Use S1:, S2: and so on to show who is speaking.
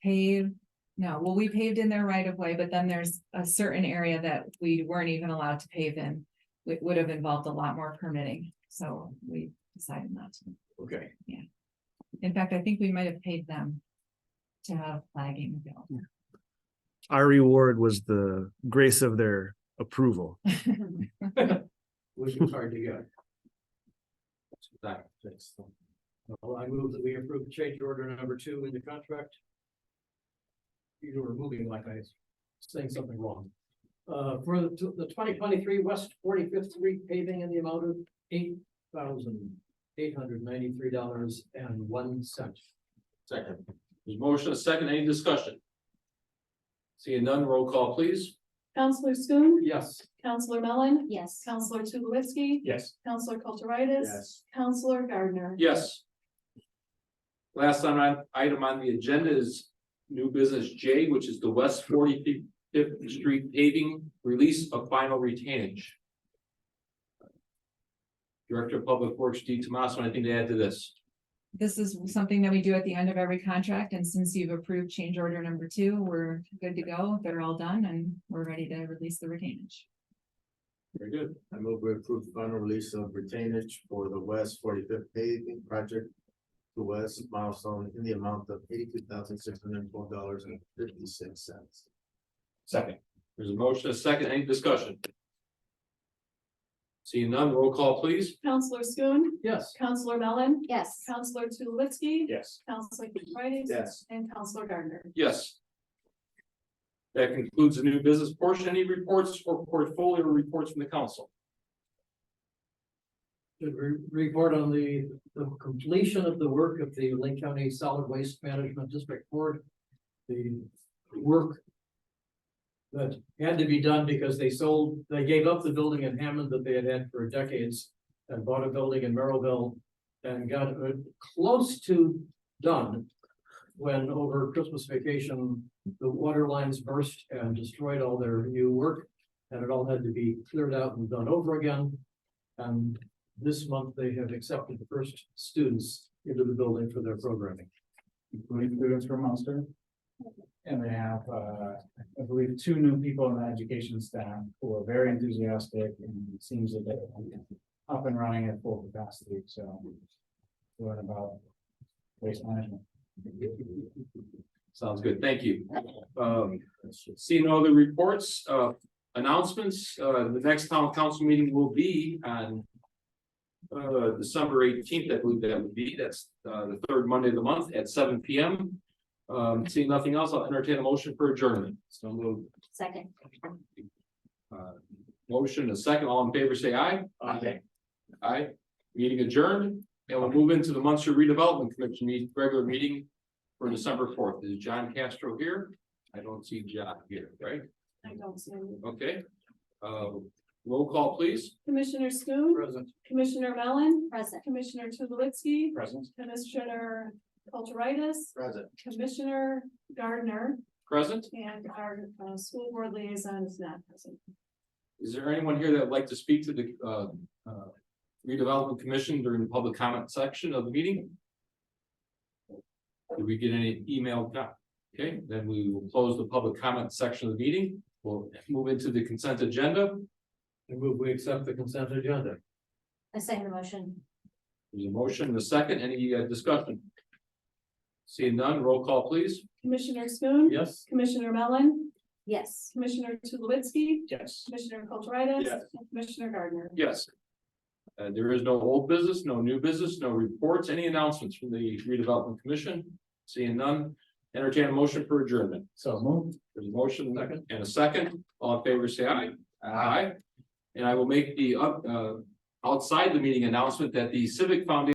S1: pave, no, well, we paved in their right of way, but then there's a certain area that we weren't even allowed to pave in. It would have involved a lot more permitting, so we decided not to.
S2: Okay,
S1: In fact, I think we might have paid them to have flagging built.
S3: our reward was the grace of their approval.
S2: which was hard to get. Well, I move that we approve change order number two in the contract. You were moving like I was saying something wrong. Uh, for the, the twenty twenty-three West Forty-Fifth Street paving in the amount of eight thousand eight hundred ninety-three dollars and one cent.
S4: Second. There's motion, a second, any discussion? Seeing none, roll call please.
S5: Counselor Schoen,
S4: Yes.
S5: Counselor Mellon,
S6: Yes.
S5: Counselor Tulowitzki,
S4: Yes.
S5: Counselor Kulturitis, Counselor Gardner.
S4: Yes. Last time on, item on the agenda is new business J, which is the West Forty Fifth Street paving release of final retainage. Director of Public Works, D. Tomaso, anything to add to this?
S1: This is something that we do at the end of every contract, and since you've approved change order number two, we're good to go. They're all done and we're ready to release the retainage.
S4: Very good.
S7: I move we approve the final release of retainage for the West Forty-Fifth paving project to West Milestone in the amount of eighty-two thousand six hundred and twelve dollars and fifty-six cents.
S4: Second. There's a motion, a second, any discussion? Seeing none, roll call please.
S5: Counselor Schoen,
S4: Yes.
S5: Counselor Mellon,
S6: Yes.
S5: Counselor Tulowitzki,
S4: Yes.
S5: Counselor Kulturitis.
S7: Yes.
S5: And Counselor Gardner.
S4: Yes. That concludes the new business portion. Any reports or portfolio reports from the council?
S2: Should re- report on the, the completion of the work of the Lake County Solid Waste Management District Board. The work. That had to be done because they sold, they gave up the building in Hammond that they had had for decades and bought a building in Merrillville. And got it close to done. When over Christmas vacation, the water lines burst and destroyed all their new work. And it all had to be cleared out and done over again. And this month they have accepted the first students into the building for their programming.
S8: including students from Munster. And they have, uh, I believe, two new people on the education staff who are very enthusiastic and it seems that they're up and running at full capacity, so. Learn about waste management.
S4: Sounds good, thank you. Um, seeing no other reports, uh, announcements, uh, the next town council meeting will be on. Uh, December eighteenth, I believe that would be, that's, uh, the third Monday of the month at seven P M. Um, seeing nothing else, I'll entertain a motion for adjournment.
S7: So moved.
S6: Second.
S4: Uh, Motion, a second, all in favor, say aye.
S7: Aye.
S4: Aye, meeting adjourned, and we'll move into the Munster Redevelopment Commission meeting, regular meeting for December fourth. Is John Castro here? I don't see John here, right?
S5: I don't see any.
S4: Okay. Uh, roll call, please.
S5: Commissioner Schoen,
S2: Present.
S5: Commissioner Mellon,
S6: Present.
S5: Commissioner Tulowitzki,
S8: Present.
S5: Commissioner Kulturitis,
S7: Present.
S5: Commissioner Gardner,
S4: Present.
S5: and our uh, school board liaison is not present.
S4: Is there anyone here that would like to speak to the, uh, uh, redevelopment commission during the public comment section of the meeting? Did we get any email? No. Okay, then we will close the public comment section of the meeting. We'll move into the consent agenda.
S2: I move we accept the consent agenda.
S6: I second the motion.
S4: There's a motion and a second. Any uh, discussion? Seeing none, roll call, please.
S5: Commissioner Schoen,
S2: Yes.
S5: Commissioner Mellon,
S6: Yes.
S5: Commissioner Tulowitzki,
S8: Yes.
S5: Commissioner Kulturitis.
S4: Yes.
S5: and Commissioner Gardner.
S4: Yes. Uh, there is no old business, no new business, no reports, any announcements from the redevelopment commission? Seeing none, entertain a motion for adjournment.
S8: So moved.
S4: There's a motion and a second. All in favor, say aye. Aye. And I will make the, uh, uh, outside the meeting announcement that the Civic Foundation